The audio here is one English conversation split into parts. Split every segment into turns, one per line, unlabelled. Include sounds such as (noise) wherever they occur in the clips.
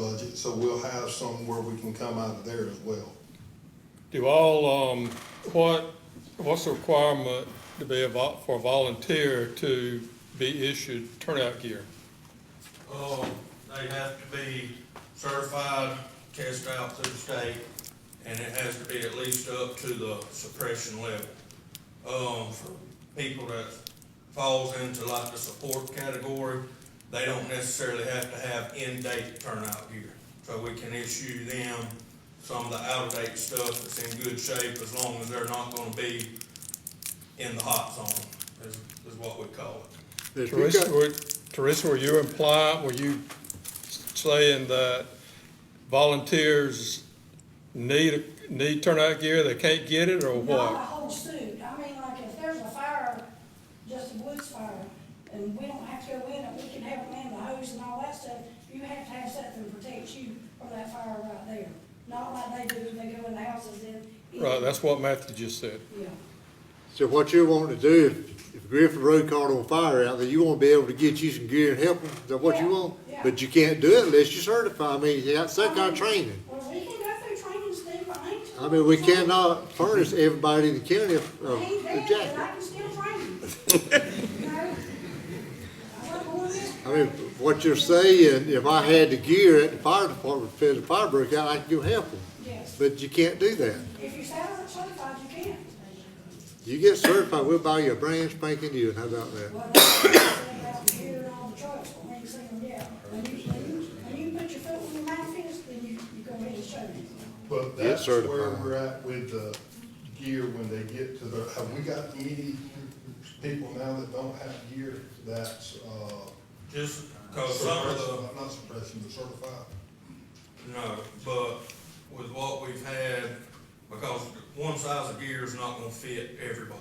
budget, so we'll have some where we can come out of there as well.
Do all, um, what, what's the requirement to be a vol, for a volunteer to be issued turnout gear?
Um, they have to be certified, tested out through the state, and it has to be at least up to the suppression level. Um, for people that falls into like the support category, they don't necessarily have to have in-date turnout gear. So we can issue them some of the out-of-date stuff that's in good shape, as long as they're not gonna be in the hot zone, is, is what we call it.
The
Teresa,
pickup-
were, Teresa, were you implying, were you saying that volunteers need, need turnout gear, they can't get it, or
Not a
what?
whole suit, I mean, like if there's a fire, just a woods fire, and we don't have to go in, it, we can have them in the hose and all that stuff, you have to have something to protect you from that fire right there. Not like they do, when they go in the houses and.
Right, that's what Matthew just said.
Yeah,
So what you're wanting to do, if- if Griffin Road caught on fire out there, you wanna be able to get you some gear and help them, is that what you
Yeah,
want?
yeah.
But you can't do it unless you certify, I mean, you got some kind of training.
well, we can go through training, Steve, I ain't.
I mean, we cannot uh, furnish everybody in the county a, a
I
a
ain't dead, but I
jacket.
can still
(laughs)
train. You know? I wasn't born this
I mean, what you're saying, if I had the gear at the fire department, if the fire broke out, I could go help them,
Yes,
but you can't do that.
if you sound certified, you can.
You get certified, we'll buy you a brand spanking new, how about that?
Well, that's what I said about here and all the trucks, I mean, saying, yeah, when you, when you, when you put your foot in your mouth, is, then you, you go ahead and show me.
But
Get
that's where
certified.
we're at with the gear when they get to the, have we got any people now that don't have gear that's, uh,
Just cause some of the,
suppressed- not suppression, but certified?
No, but with what we've had, because one size of gear is not gonna fit everybody.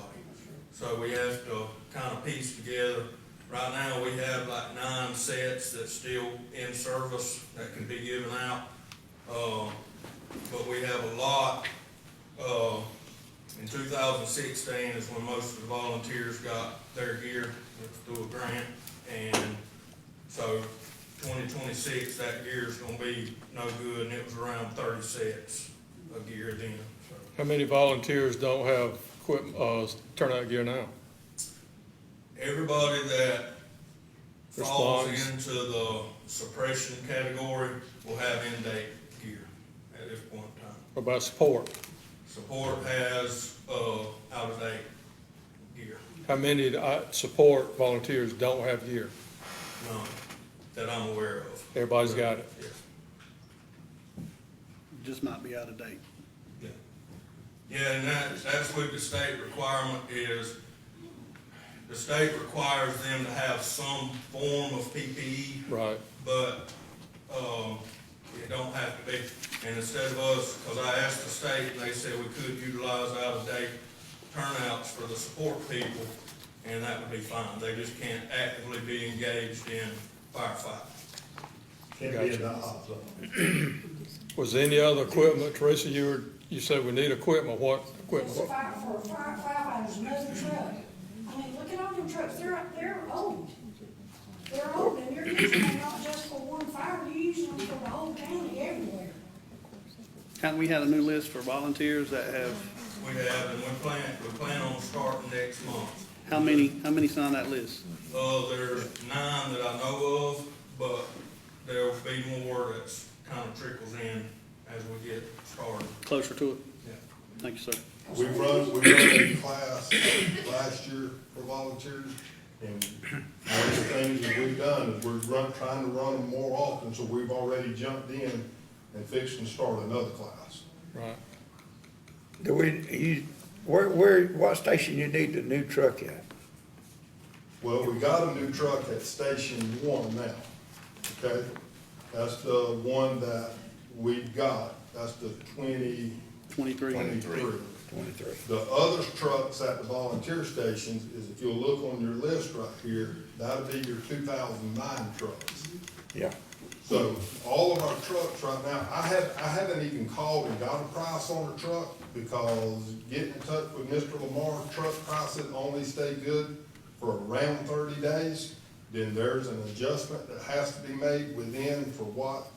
So we have to kind of piece together. Right now, we have like nine sets that's still in service that can be given out. Uh, but we have a lot, uh, in two thousand sixteen is when most of the volunteers got their gear through a grant. And so twenty twenty-six, that gear is gonna be no good, and it was around thirty sets of gear then, so.
How many volunteers don't have equip, uh, turnout gear now?
Everybody that falls
Responds.
into the suppression category will have end-date gear at this point in time.
Or by support?
Support has, uh, out-of-date gear,
How many, uh, support volunteers don't have gear?
none that I'm aware of,
Everybody's got it.
yes.
just might be out of date.
Yeah, Yeah, and that, that's what the state requirement is. The state requires them to have some form of PPE,
Right,
but, um, it don't have to be. And instead of us, cause I asked the state, and they said we could utilize out-of-date turnouts for the support people, and that would be fine. They just can't actively be engaged in firefighting.
Can't be in the hot zone.
Was there any other equipment, Teresa, you were, you said we need equipment, what
It's a
equipment?
fire, for a fire, firefighters, another truck. I mean, look at all them trucks, they're, they're old. They're old, and you're using them not just for one fire, you're using them for the whole county everywhere.
Kind, we had a new list for volunteers that have,
We have, and we plan, we plan on starting next month.
how many, how many signed that list?
Uh, there's nine that I know of, but there'll be more that's kind of trickles in as we get started.
Closer to it?
Yeah.
Thank you, sir.
We run, we run a class last year for volunteers, and one of the things that we've done is we're run, trying to run them more often, so we've already jumped in and fixed and started another class.
Right,
Do we, you, where, where, what station you need the new truck at?
Well, we got a new truck at Station One now, okay? That's the one that we got, that's the twenty
Twenty-three.
twenty-three.
Twenty-three.
The other trucks at the volunteer stations is, if you'll look on your list right here, that'll be your two thousand nine trucks.
Yeah.
So all of our trucks right now, I have, I haven't even called and got a price on a truck because getting in touch with Mr. Lamar, truck prices only stay good for around thirty days. Then there's an adjustment that has to be made within for what